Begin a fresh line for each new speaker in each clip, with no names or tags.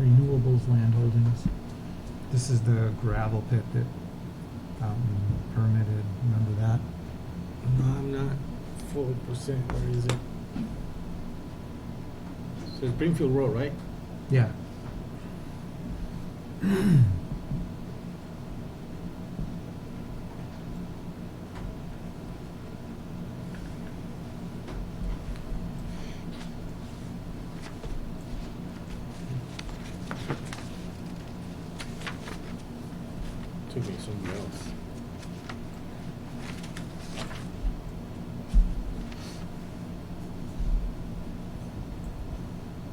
renewables land holdings.
This is the gravel pit that Fountain permitted, remember that?
No, I'm not fully percent, where is it? So it's Greenfield Road, right?
Yeah.
Took me somewhere else.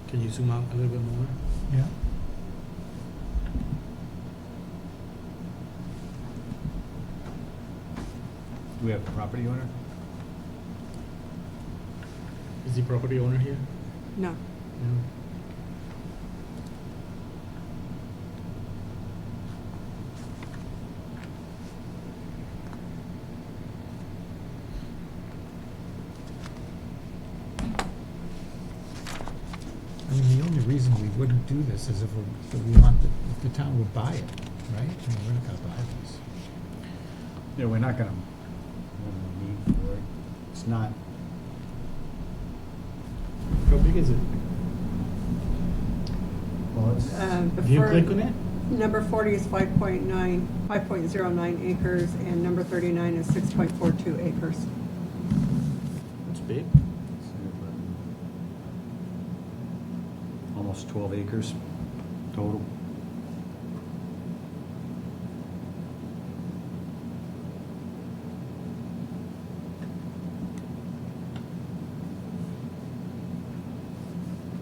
Can you zoom out a little bit more?
Yeah.
Do we have a property owner?
Is the property owner here?
No.
No?
I mean, the only reason we wouldn't do this is if we, if we want, the- if the town would buy it, right? I mean, we're not gonna buy this.
Yeah, we're not gonna, we don't need for it. It's not,
How big is it?
well, it's,
Um,
Do you
before-
click on it?
Number 40 is 5.9, 5.09 acres, and number 39 is 6.42 acres.
It's big.
almost twelve acres total.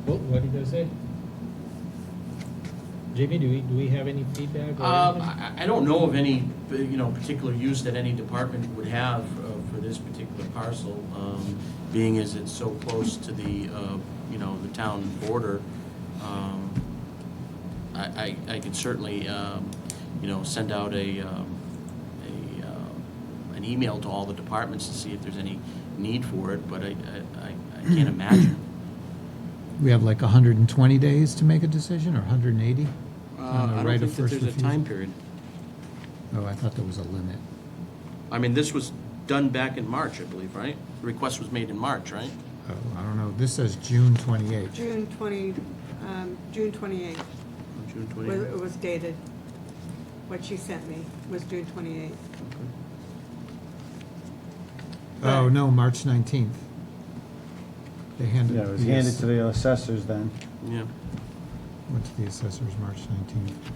What, what did I say? Jamie, do we, do we have any feedback or
Um,
anything?
I, I don't know of any, you know, particular use that any department would have uh, for this particular parcel, um, being as it's so close to the, uh, you know, the town border. Um, I, I, I could certainly, um, you know, send out a, um, a, um, an email to all the departments to see if there's any need for it, but I, I, I- I can't imagine.
We have like hundred and twenty days to make a decision, or hundred and eighty?
Uh, I don't think that there's a time period.
Oh, I thought there was a limit.
I mean, this was done back in March, I believe, right? The Request was made in March, right?
Oh, I don't know, this says June twenty-eighth.
June 20, um, June 28th
June
was-
28th.
it was dated. What she sent me was June 28th.
Oh, no, March nineteenth. They handed.
Yeah, it was handed to the assessors then.
Yeah.
Went to the assessors, March nineteenth.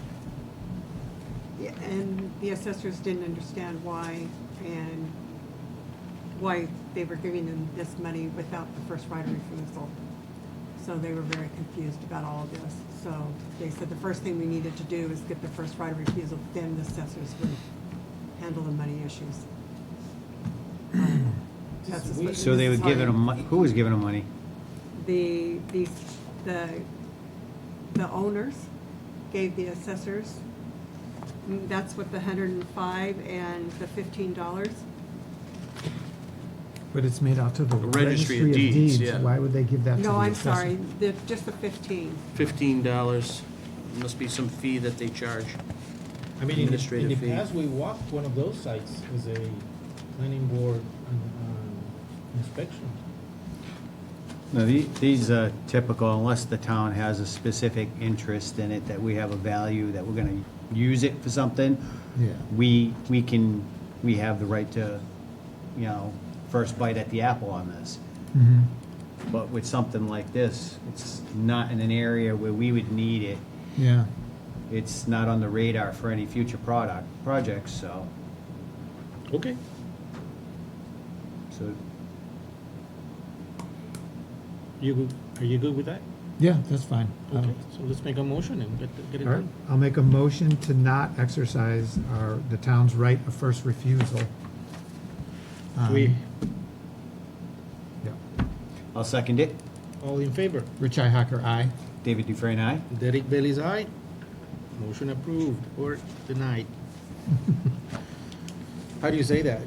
Yeah, And the assessors didn't understand why and why they were giving them this money without the first right of refusal. So they were very confused about all of this. So they said the first thing we needed to do is get the first right of refusal, then the assessors would handle the money issues. That's just what-
Um, So they
this
were
is how
giving
they-
them, mon- who was giving them money?
the, the, the, the owners gave the assessors, mm, that's what the hundred and five and the fifteen dollars.
But it's made out to the
The Registry of
registry of
Deeds,
deeds.
yeah.
Why would they give that to the assessor?
No, I'm sorry, the, just the fifteen.
Fifteen dollars, must be some fee that they charge.
I mean, in the, in
administrative
the
fee.
past, we walked one of those sites as a planning board um, inspection.
No, the- these are typical unless the town has a specific interest in it, that we have a value, that we're gonna use it for something.
Yeah.
We, we can, we have the right to, you know, first bite at the apple on this.
Mhm.
But with something like this, it's not in an area where we would need it.
Yeah,
It's not on the radar for any future product, projects, so,
Okay.
so
You, good- are you good with that?
yeah, that's fine. I
Okay,
don't-
so let's make a motion and get, get it
All right,
done.
I'll make a motion to not exercise our, the town's right of first refusal. Um,
We,
yeah.
I'll second it.
all in favor?
Rich Ihacker, aye.
David Dufresne, aye.
Derek Bailey's aye. Motion approved or denied. How do you say that?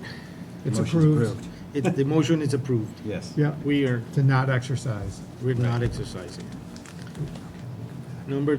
It's
Motion's
approved.
It's, the motion is approved.
Yes.
Yeah,
We are,
to not exercise.
we're not exercising. Number